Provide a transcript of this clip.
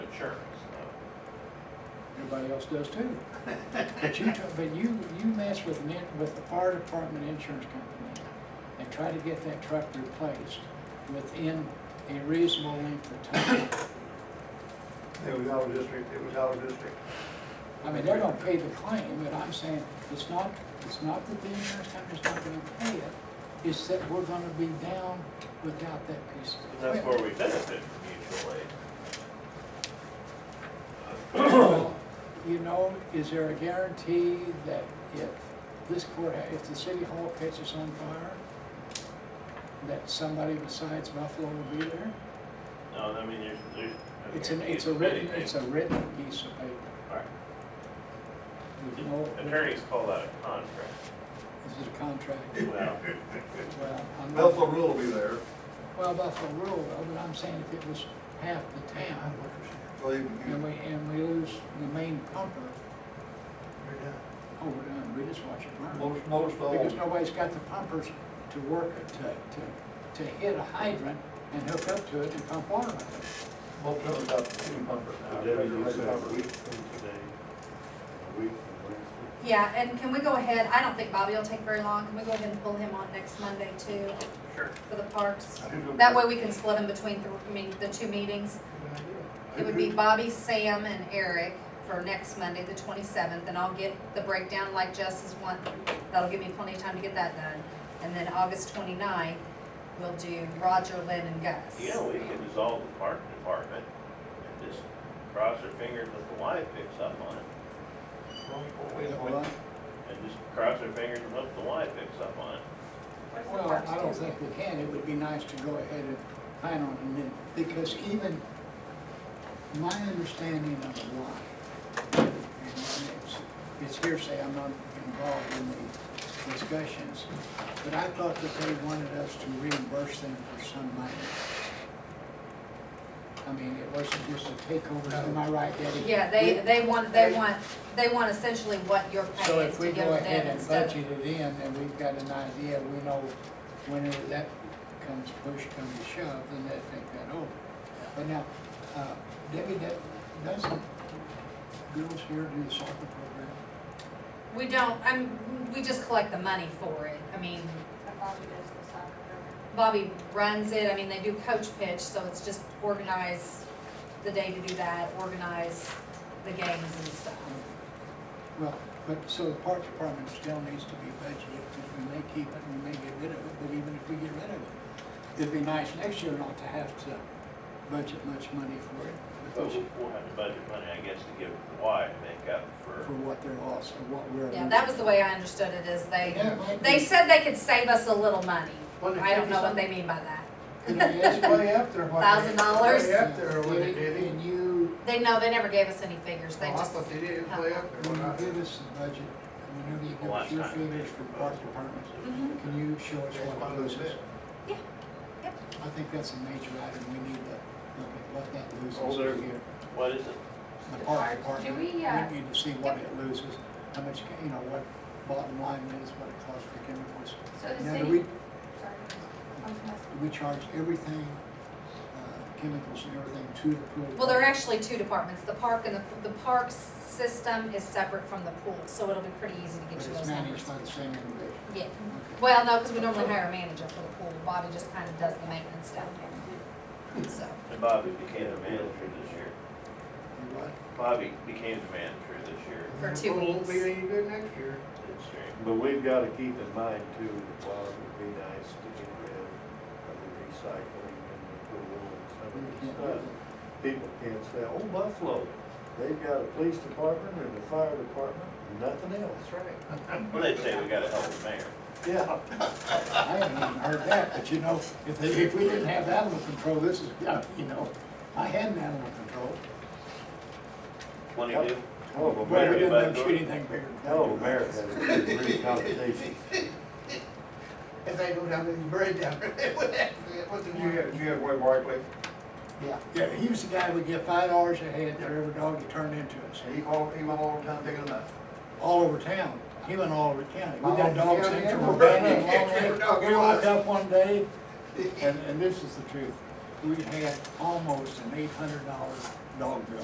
insurance. Everybody else does too. But you, try- but you, you mess with, an in- with the fire department insurance company and try to get that truck replaced within a reasonable length of time. It was out of district, it was out of district. I mean, they're gonna pay the claim, but I'm saying, it's not, it's not that the insurance company's not gonna pay it, it's that we're gonna be down without that piece of And that's equipment. where we benefit from mutual aid. Well, You know, is there a guarantee that if this court, if the city hall catches on fire, that somebody besides Buffalo will be there? No, I mean, there's, there's. I It's mean, an, it's a written, it's a written piece of paper. Alright. There's no- Attorneys call that a contract. This is a contract. Well, Well, I'm not- Buffalo rule will be there. Well, Buffalo rule, though, but I'm saying if it was half the town, Well, you, and we, and we lose the main pumper, you, oh, we're done, we just watch it burn. most, most Because all, nobody's got the pumpers to work, it, to, to, to hit a hydrant and hook up to it and pump water out of most of them got two pumpers now. The deputy regular said a pumper. week from today, a week from Wednesday. Yeah, and can we go ahead, I don't think Bobby will take very long, can we go ahead and pull him on next Monday too, sure. for the parks? I think it'll be- That way we can split him between, the- I mean, the two meetings. It would be Bobby, Sam, and Eric for next Monday, the twenty-seventh, and I'll get the breakdown like Justice want. That'll give me plenty of time to get that done. And then August 29th, we'll do Roger, Lynn, and Gus. You know, we can dissolve the park department and just cross our fingers that the wife picks up on it. it. Well, And just cross our fingers and hope the wife picks up on it. Well, I don't think we can, it would be nice to go ahead and plan on it, then, because even my understanding of the law, and it's, it's hearsay, I'm not involved in the discussions, but I thought that they wanted us to reimburse them for some money. I mean, it wasn't just a takeover, am I right, Debbie? Yeah, they, they want, they want, they want essentially what you're So paying if to we give go ahead them and instead of budget it in, then we've got an idea, we know whenever that comes, push comes to shove, then they take that over. But now, uh, Debbie, that, doesn't girls here do the soccer program? We don't, I'm, we just collect the money for it. I mean, Bobby runs it, I mean, they do coach pitch, so it's just organize the day to do that, organize the games and stuff. Well, but, so the park department still needs to be budgeted, because we may keep it, we may get rid of it, but even if we get rid of it, it'd be nice next year not to have to budget much money for it, But because we'll we'll have to budget money, I guess, to give the wife make up for. for what they're lost, or what we're. Yeah, that was the way I understood it, is they, That might they be- said they could save us a little money. Well, they I gave don't know us what they mean by that. You know, yes, It's way up there. what they- Thousand dollars? Way up there, what they did. And you, They, no, they never gave us any figures, Oh, they I just, thought they did, it was way up there. when when you I- give us the budget, and whenever you give us your figures for park departments, Mhm. can you show us what it loses? Yeah, yep. I think that's a major item, we need to look at what that Oh, there- loses here. What is it? The park Do department, we we, uh, need to see what it loses, how much, you know, what bottom line is, what it costs for chemicals. So the Now, do city- we, Sorry. I was gonna we charge everything, uh, chemicals and everything to the pool. Well, there are actually two departments, the park and the, the parks system is separate from the pool, so it'll be pretty easy to But get you it's those numbers. managed by the same individual. Yeah, Okay. well, no, because we normally hire a manager for the pool, Bobby just kind of does the maintenance down there, so. And Bobby became the manager this year. You what? Bobby became the manager this year. For two Well, Won't weeks. be any good next year. It's strange. But we've got to keep in mind too, that while it would be nice to get rid of the recycling and the pool and some of the stuff, people can't say, oh, Buffalo, they've got a police department and a fire department, nothing else. That's right. Well, they'd say we gotta help the mayor. Yeah. I haven't even heard that, but you know, if they, if we didn't have animal control, this is, yeah, you know, I had an animal control. Twenty-two? Hell Well, of a Oh, we mayor, didn't let them but- shoot anything bigger. hell of a mayor had a pretty competition. If they go down there, you bury down there, it would have, it wasn't. You have, you have Roy Barkley, Yeah, yeah, he was the guy would get five dollars a head for every dog he turned into us, he called, he went all the time picking them up. all over town. He went all over county. We got All over dogs in county, from everywhere. Urbana and Every dog Longwood. We was. walked up one day, and, and this is the truth, we had almost an eight hundred dollar dog bill.